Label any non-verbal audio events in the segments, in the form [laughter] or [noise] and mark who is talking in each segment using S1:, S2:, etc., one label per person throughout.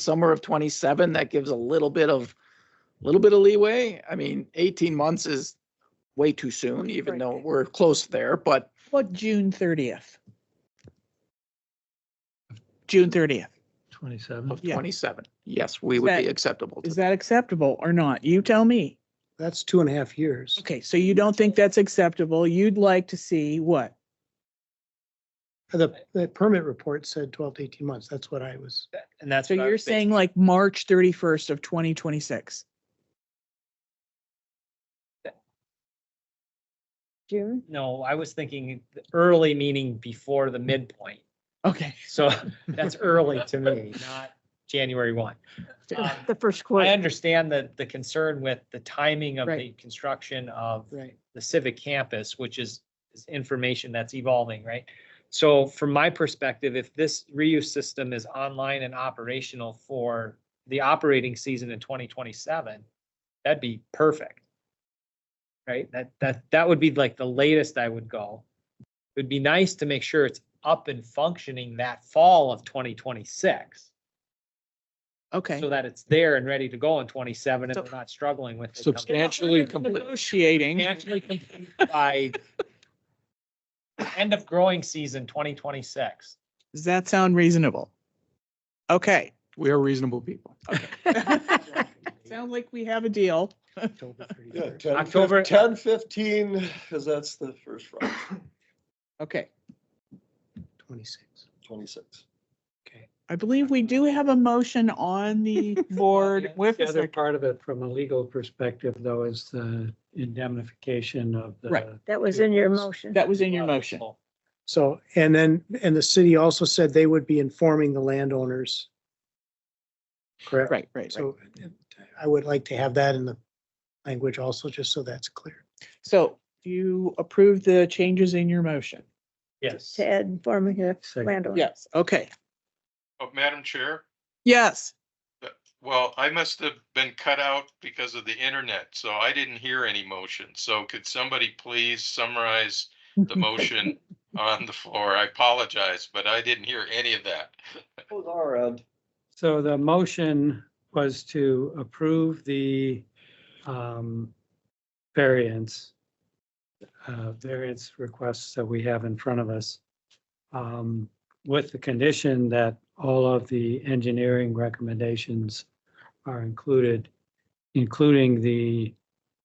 S1: summer of twenty-seven, that gives a little bit of, little bit of leeway. I mean, eighteen months is way too soon, even though
S2: Right.
S1: we're close there, but
S2: What, June thirtieth? June thirtieth.
S3: Twenty-seven.
S1: of
S2: Yeah.
S1: twenty-seven, yes, we would be
S2: That-
S1: acceptable. to
S2: Is that acceptable or not? You tell me.
S4: That's two and a half years.
S2: Okay, so you don't think that's acceptable. You'd like to see what?
S4: Uh, The, the permit report said twelve to eighteen months. That's what I was,
S5: And that's.
S2: So
S5: what I
S2: you're
S5: was
S2: saying like March thirty-first of twenty twenty-six?
S6: June?
S5: thinking. No, I was thinking the early meaning before the midpoint.
S2: Okay.
S5: So [laughs] that's early to me, not January one.
S2: [laughs]
S5: Um,
S6: The first
S5: I
S6: quarter.
S5: understand that the concern with the timing of the
S2: Right.
S5: construction of
S2: Right.
S5: the civic campus, which is, is information that's evolving, right? So from my perspective, if this reuse system is online and operational for the operating season in twenty twenty-seven, that'd be perfect. Right? That, that, that would be like the latest I would go. It'd be nice to make sure it's up and functioning that fall of twenty twenty-six.
S2: Okay.
S5: So that it's there and ready to go in twenty-seven
S1: So-
S5: and we're not struggling with. it.
S1: Substantially complete.
S2: Negotiating.
S5: Actually complete by end of growing season twenty twenty-six.
S2: Does that sound reasonable?
S5: [laughs]
S2: Okay.
S3: We are reasonable people.
S2: Sound like we have a deal.
S6: [laughs]
S4: October
S7: Yeah,
S4: 31st.
S7: 10,
S5: October-
S7: 10, 15, because that's the first Friday,
S2: Okay.
S4: twenty-six.
S7: 26.
S2: I believe we do have a motion on
S5: [laughs]
S2: the board with
S3: The
S2: the
S3: other
S2: sec-
S3: part of it from a legal perspective though is the indemnification of
S2: Right.
S3: the.
S6: That was in your motion.
S2: that was in your motion.
S4: So, and then, and the city also said they would be informing the landowners. Correct?
S2: Right, right, right.
S4: So I would like to have that in the language also, just so that's clear.
S2: So you approve the changes in your motion?
S5: Yes.
S6: To add informing the
S3: Second.
S6: landowner.
S2: Yes. Okay.
S8: Oh, Madam Chair,
S2: Yes.
S8: well, I must have been cut out because of the internet, so I didn't hear any motion. So could somebody please summarize the motion on the floor? I apologize, but I didn't hear any of that.
S7: Those are, uh,
S3: So the motion was to approve the um, variance, uh, variance requests that we have in front of us um, with the condition that all of the engineering recommendations are included, including the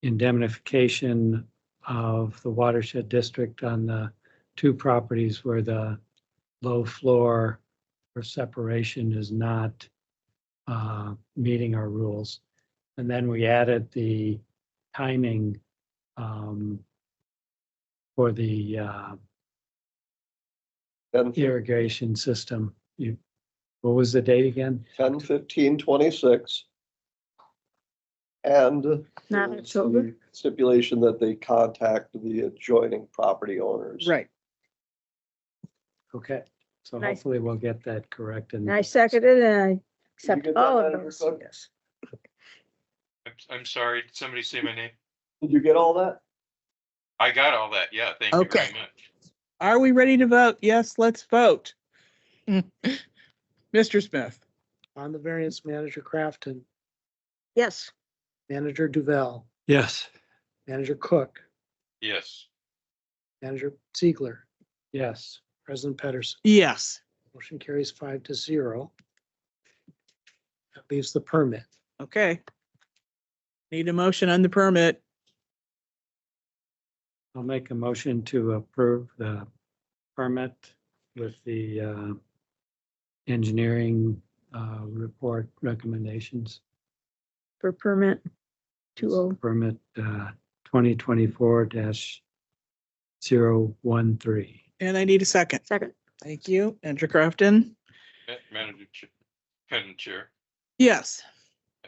S3: indemnification of the watershed district on the two properties where the low floor or separation is not uh, meeting our rules. And then we added the timing um, for the uh,
S7: ten,
S3: irrigation system. You, what was the date again?
S7: 10, 15, 26. And.
S6: Not
S7: there's
S6: October.
S7: the Stipulation that they contact the adjoining property owners.
S2: Right.
S3: Okay, so
S6: Nice.
S3: hopefully we'll get that correct and
S6: And I seconded and I
S7: Did you
S6: accept
S7: get that,
S6: all of
S7: Madam
S6: those.
S7: Clerk?
S6: Yes.
S8: I'm, I'm sorry, did somebody say my name?
S7: Did you get all that?
S8: I got all that, yeah, thank you very
S2: Okay.
S8: much.
S2: Are we ready to vote? Yes, let's vote. Mr. Smith?
S4: On the variance, Manager Crafton,
S6: Yes,
S4: Manager Duval,
S3: yes,
S4: Manager Cook,
S8: Yes,
S4: Manager Ziegler,
S3: yes.
S4: President Pedersen.
S2: Yes.
S4: Motion carries five to zero. That leaves the permit.
S2: Okay. Need a motion on the permit.
S3: I'll make a motion to approve the permit with the uh, engineering uh, report recommendations.
S6: for permit two
S3: It's
S6: oh.
S3: Permit uh, 2024-013.
S2: And I need a second.
S6: Second.
S2: Thank you. Andrew Crafton?
S8: Ma- Madam Chair, Madam Chair,
S2: Yes.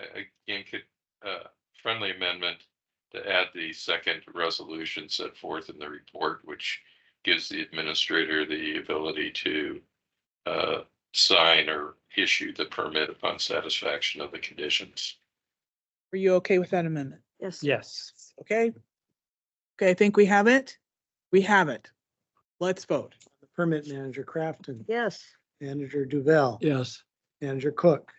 S8: uh, again, could, uh, friendly amendment to add the second resolution set forth in the report, which gives the administrator the ability to uh, sign or issue the permit upon satisfaction of the conditions.
S2: Are you okay with that amendment?
S6: Yes.
S3: Yes.
S2: Okay. Okay, I think we have it. We have it. Let's vote.
S4: Permit Manager Crafton,
S6: Yes.
S4: Manager Duval,
S3: Yes.
S4: Manager Cook,